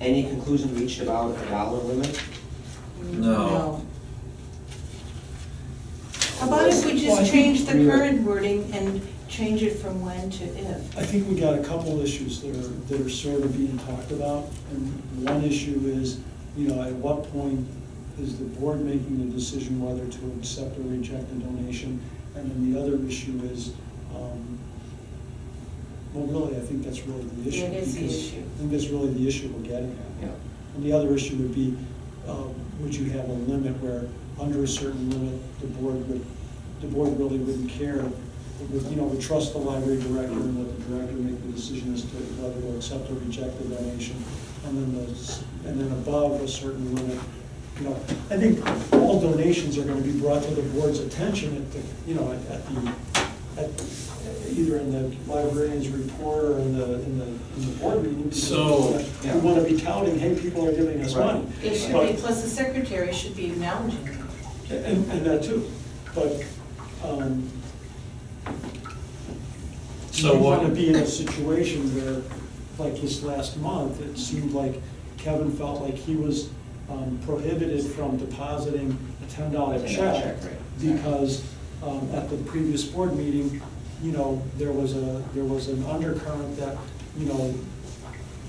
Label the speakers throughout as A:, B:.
A: Any conclusion reached about a dollar limit?
B: No.
C: How about if we
D: Well, I
C: just
D: think
C: change the
D: we are-
C: current wording and change it from when to if?
D: I think we got a couple issues that are, that are sort of being talked about. And one issue is, you know, at what point is the board making the decision whether to accept or reject a donation? And then the other issue is, um, well, really, I think that's really the issue.
C: That is the
D: because
C: issue.
D: I think that's really the issue we're getting at.
A: Yeah.
D: And the other issue would be, uh, would you have a limit where, under a certain limit, the board would, the board really wouldn't care? It would, you know, would trust the library director and let the director make the decision as to whether to accept or reject the donation. And then the, s- and then above a certain limit, you know, I think all donations are gonna be brought to the board's attention at the, you know, at at the, at, either in the librarian's report or in the, in the, in the board meeting. because
B: So-
D: We wanna be touting, hey, people are giving us money.
C: It should be, plus the secretary should be acknowledging it.
D: And, and that too, but, um.
B: So
D: You wanna
B: what-
D: be in a situation where, like this last month, it seemed like Kevin felt like he was um, prohibited from depositing a ten dollar
A: $10
D: check.
A: check, right.
D: Because, um, at the previous board meeting, you know, there was a, there was an undercurrent that, you know,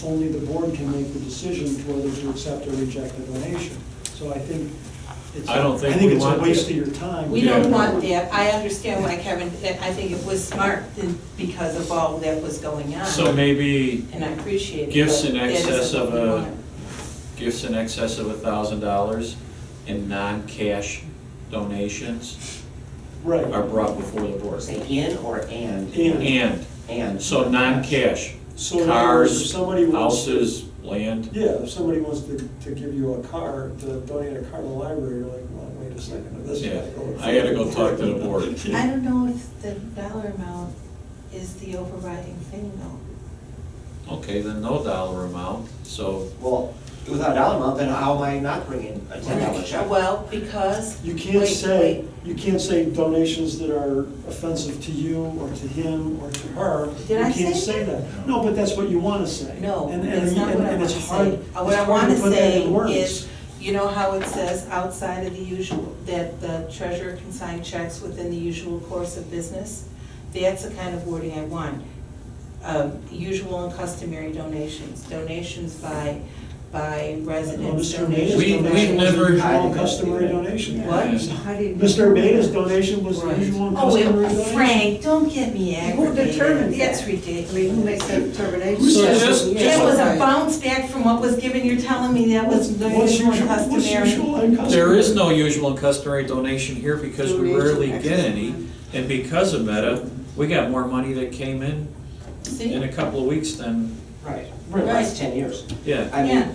D: only the board can make the decision whether to accept or reject a donation. So I think it's.
B: I don't think we
D: it's a
B: want
D: waste
B: that.
D: of your time.
C: We don't
B: Yeah.
C: want that, I understand why Kevin, that I think it was smart in- because of all that was going on.
B: So maybe
C: And I appreciate it.
B: gifts
C: but
B: in
C: that isn't
B: excess of
C: what we
B: a-
C: want.
B: gifts in excess of a thousand dollars and non-cash donations are
D: Right,
B: brought before the board.
A: Say in or and?
D: And.
B: And,
A: And.
B: so non-cash,
D: So in other words, if
B: cars,
D: somebody wants to-
B: houses, land.
D: yeah, if somebody wants to, to give you a car, to donate a car to the library, you're like, well, wait a second, this.
B: Yeah,
D: gotta go-
B: I gotta go talk to the board.
C: I don't know if the dollar amount is the overriding thing though.
B: Okay, then no dollar amount, so
A: Well, without a dollar amount, then how am I not bringing a ten dollar check?
C: Well, because.
D: You can't
C: wait,
D: say,
C: wait.
D: you can't say donations that are offensive to you, or to him, or to her.
C: Did
D: You
C: I
D: can't
C: say that?
D: that. No, but that's what you wanna say.
C: No,
D: And- and-
C: that's not
D: and-
C: what I
D: and
C: want
D: it's
C: to
D: hard-
C: say.
D: it's
C: Uh, What I
D: hard
C: want to
D: put that
C: say
D: in words.
C: is, you know how it says outside of the usual, that the treasurer can sign checks within the usual course of business? That's the kind of wording I want. Um, Usual and customary donations, donations by, by residents,
D: Mr. Maida's
C: donations.
B: We-
C: by-
B: we've
D: donation was
B: never-
D: the usual
A: I-
D: and customary donation.
C: What?
E: How do you-
D: Mr. Maida's donation was the
C: Right.
D: usual and
C: Oh,
D: customary
C: wait,
D: donation.
C: Frank, don't get me
E: Who
C: aggravated.
E: determined that?
C: That's ridiculous.
E: I mean, who makes that determination?
D: Who
B: says- Just-
C: That was a bounce back from what was given, you're telling me that was the
D: What's
C: usual
D: usual-
C: and
D: what's
C: customary?
D: usual and
B: there
D: customary?
B: is no usual and customary donation here because we
E: Donation,
B: rarely get
E: excellent.
B: any. And because of Meta, we got more money that came in in
C: See?
B: a couple of weeks than,
A: Right, for the last ten years.
B: yeah.
A: I
C: Yeah.
A: mean,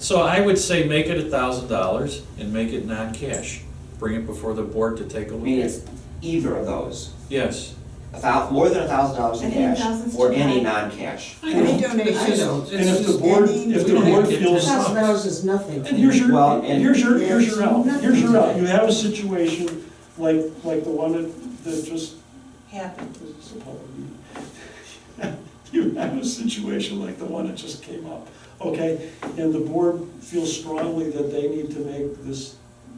B: So I would say make it a thousand dollars and make it non-cash. Bring it before the board to take a
A: I
B: look
A: mean,
B: at.
A: it's either of those,
B: Yes.
A: a thou, more than a thousand dollars
C: I
A: in
C: think
A: cash,
C: $1,000 is
A: or
C: too
A: any
C: high.
A: non-cash.
E: Any
D: I know.
E: donations.
D: And if the board, if the board
B: It's just
D: feels.
B: any-
E: Thousand dollars is nothing.
D: And here's your,
A: Well, and-
D: here's your, here's your out,
E: Nothing.
D: here's your out. You have a situation like, like the one that, that just,
C: Happened.
D: it's a public meeting. You have a situation like the one that just came up, okay? And the board feels strongly that they need to make this,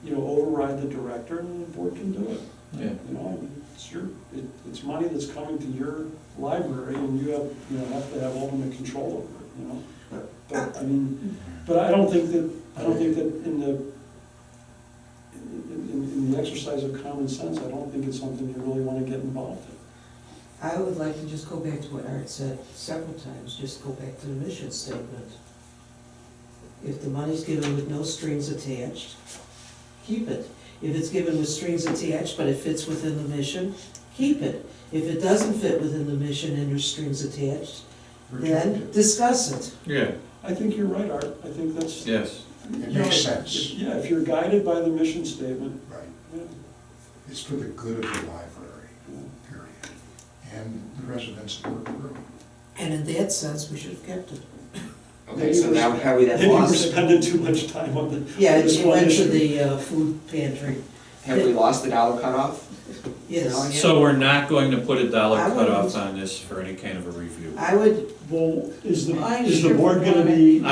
D: you know, override the director, and the board can do it.
B: Yeah.
D: You know, I mean, it's your, it, it's money that's coming to your library and you have, you know, have to have ultimate control over it, you know? But, I mean, but I don't think that, I don't think that in the, in, in, in the exercise of common sense, I don't think it's something you really wanna get involved in.
E: I would like to just go back to what Art said several times, just go back to the mission statement. If the money's given with no strings attached, keep it. If it's given with strings attached, but it fits within the mission, keep it. If it doesn't fit within the mission and there's strings attached, then discuss it.
B: Yeah,
D: I think you're right, Art, I think that's.
B: yes.
F: It
D: you know,
F: makes
D: if-
F: sense,
D: Yeah, if you're guided by the mission statement,
F: right?
D: yeah.
F: It's for the good of the library, period, and the residents of North Grove.
E: And in that sense, we should have kept it.
A: Okay, so now have we then
D: Maybe we're
A: lost,
D: spending too much time on the, on
E: Yeah, it
D: this
E: it
D: one
E: went to
D: issue.
E: the uh, food pantry,
A: have we lost the dollar cutoff?
E: yes.
B: So we're not going to put a dollar
E: I wouldn't-
B: cutoff on this for any kind of a review.
E: I would
D: Well, is the,
C: I
D: is the
C: sure
D: board gonna
C: wanna-
D: be?